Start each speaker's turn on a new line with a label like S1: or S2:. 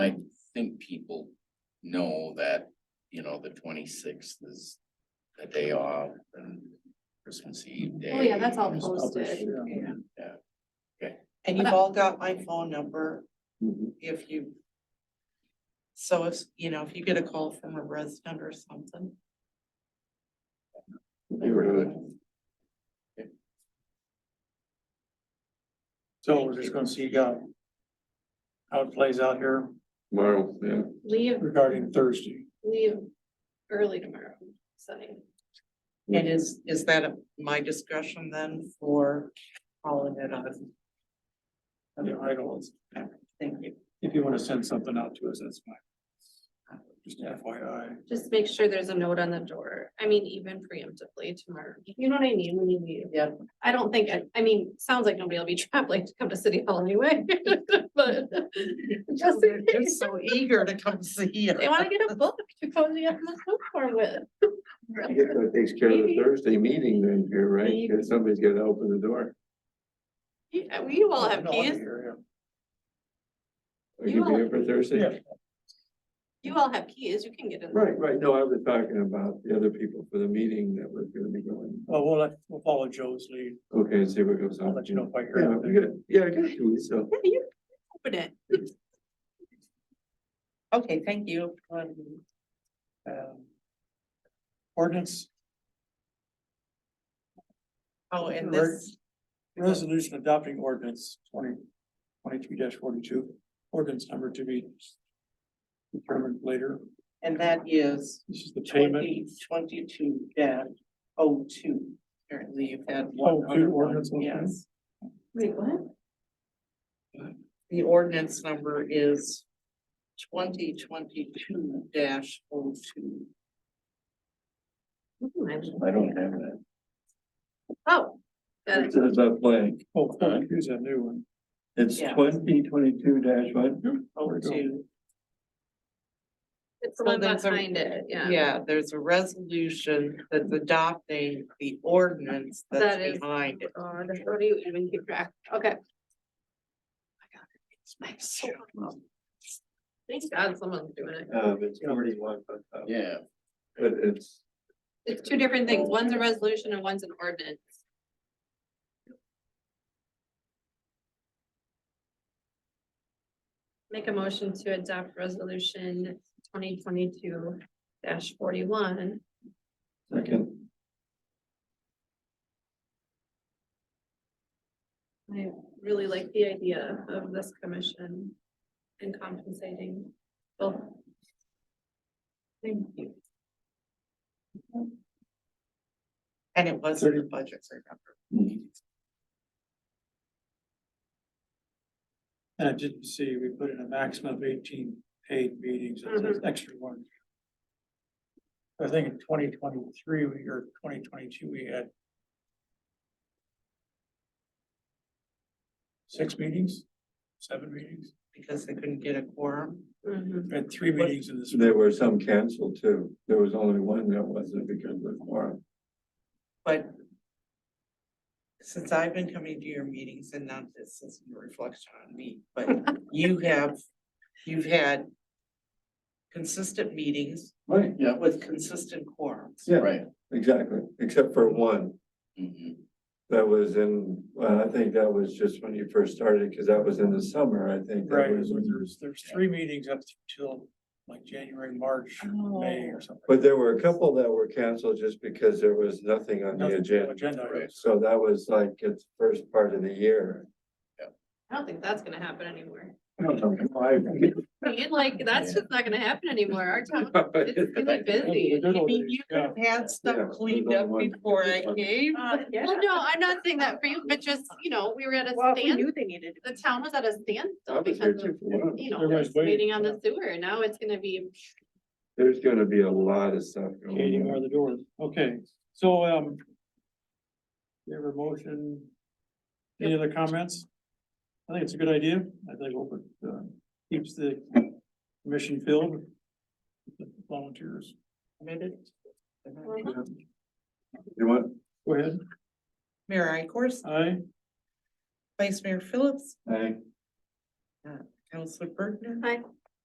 S1: I think people know that, you know, the twenty-sixth is the day off and Christmas Eve day.
S2: Oh, yeah, that's all
S1: and-
S2: posted.
S3: And you've all got my phone number
S2: Mm-hmm.
S1: Mhm.
S3: if you. So if, you know, if you get a call from a resident or something,
S1: They were good.
S4: So we're just gonna see how. How it plays out here
S5: Tomorrow, yeah.
S2: Leave,
S4: regarding Thursday.
S2: leave early tomorrow, Sunday.
S3: and is, is that at my discretion then for calling it on?
S4: Yeah, I don't,
S3: Thank you.
S4: if you wanna send something out to us, that's fine. Just FYI.
S2: Just make sure there's a note on the door. I mean, even preemptively tomorrow. You know what I mean when you leave?
S3: Yep.
S2: I don't think, I, I mean, sounds like nobody will be traveling to come to City Hall anyway, but. Just
S3: They're
S2: in
S3: just
S2: case
S3: so eager to come see you.
S2: They wanna get a book to cozy up in the snowstorm
S5: I guess
S2: with.
S5: that takes care of the
S2: Maybe.
S5: Thursday meeting then here, right? Cause somebody's got to open the door.
S2: Yeah, we all have keys.
S5: Are you there for
S4: Yeah.
S5: Thursday?
S2: You all have keys. You can get in.
S5: Right, right. No, I was talking about the other people for the meeting that was gonna be going.
S4: Well, we'll, let- we'll follow Joe's lead.
S5: Okay, and see what goes on.
S4: I'll let you know if I hear
S5: Yeah, we
S4: anything.
S5: got, yeah, I got you, so.
S2: Yeah, you can open it.
S3: Okay, thank you.
S4: Um, Ordinance
S3: Oh, and
S4: Right.
S3: this,
S4: Resolution adopting ordinance twenty twenty-three forty-two, ordinance number to be determined later.
S3: and that is
S4: This is the payment.
S3: twenty twenty-two dash oh two. Apparently you've had
S4: Oh,
S3: one
S4: two
S3: other one,
S4: ordinance, okay.
S3: yes.
S2: Wait, what?
S3: The ordinance number is twenty twenty-two dash oh two.
S5: I don't have that.
S2: Oh. got it.
S5: It says I'm blank.
S4: Oh, here's a new one.
S5: It's
S3: Yeah.
S5: twenty twenty-two dash one.
S3: Oh, two.
S2: It's the one
S3: there's a-
S2: behind it, yeah.
S3: Yeah, there's a resolution that's adopting the ordinance that's
S2: That is-
S3: behind it.
S2: Oh, the- What do you even keep track? Okay. Thanks God someone's doing it.
S5: Um, it's forty-one, but, uh,
S1: Yeah,
S5: but it's,
S2: It's two different things. One's a resolution and one's an ordinance. Make a motion to adopt resolution twenty twenty-two forty-one.
S5: second.
S2: I really like the idea of this commission and compensating both. Thank you.
S3: And it was in the budget, remember?
S4: And I didn't see, we put in a maximum of eighteen paid meetings, it's
S5: Mm-hmm.
S4: an extra one. I think in twenty twenty-three, we, or twenty twenty-two, we had six meetings, seven meetings,
S3: Because they couldn't get a quorum.
S2: Mhm.
S4: we had three meetings in this.
S5: There were some canceled too. There was only one that wasn't because of the quorum.
S3: But since I've been coming to your meetings and not this is a reflection on me, but you have, you've had consistent meetings
S5: Right,
S1: yeah,
S3: with consistent quorums.
S5: yeah,
S1: right.
S5: exactly, except for one.
S1: Mhm.
S5: That was in, well, I think that was just when you first started, because that was in the summer, I think. that
S4: Right,
S5: was when you-
S4: there's, there's three meetings up till like January, March, May or something.
S5: But there were a couple that were canceled just because there was nothing on the
S4: Nothing
S5: agenda.
S4: Agenda,
S1: Right.
S5: So that was like its first part of the year.
S2: I don't think that's gonna happen anymore.
S5: It's
S2: I mean, like, that's just not gonna happen anymore. Our town is really busy.
S4: Good
S3: I
S4: old
S3: mean,
S4: days,
S3: you could
S4: yeah.
S3: have had
S5: Yeah,
S3: stuff cleaned
S5: there's
S3: up
S5: only one.
S3: before I came.
S2: Well, no, I'm not saying that for you, but just, you know, we were at a stand,
S6: they needed.
S2: the town was at a
S5: I
S2: standstill
S5: was there
S2: because of,
S5: too for one.
S2: you know,
S4: Everybody's
S2: this meeting
S4: waiting,
S2: on the sewer. and Now it's gonna be,
S5: There's gonna be a lot of stuff
S4: Katie
S5: going
S4: are
S5: on.
S4: the doors, okay, so, um. You have a motion, any other comments? I think it's a good idea, I think open, uh, keeps the commission filled. with Volunteers,
S2: Uh,
S5: You want,
S4: go ahead,
S3: Mayor Ikorst,
S4: aye,
S3: Vice Mayor Phillips,
S5: I,
S3: Councilor Bergner.
S2: Aye.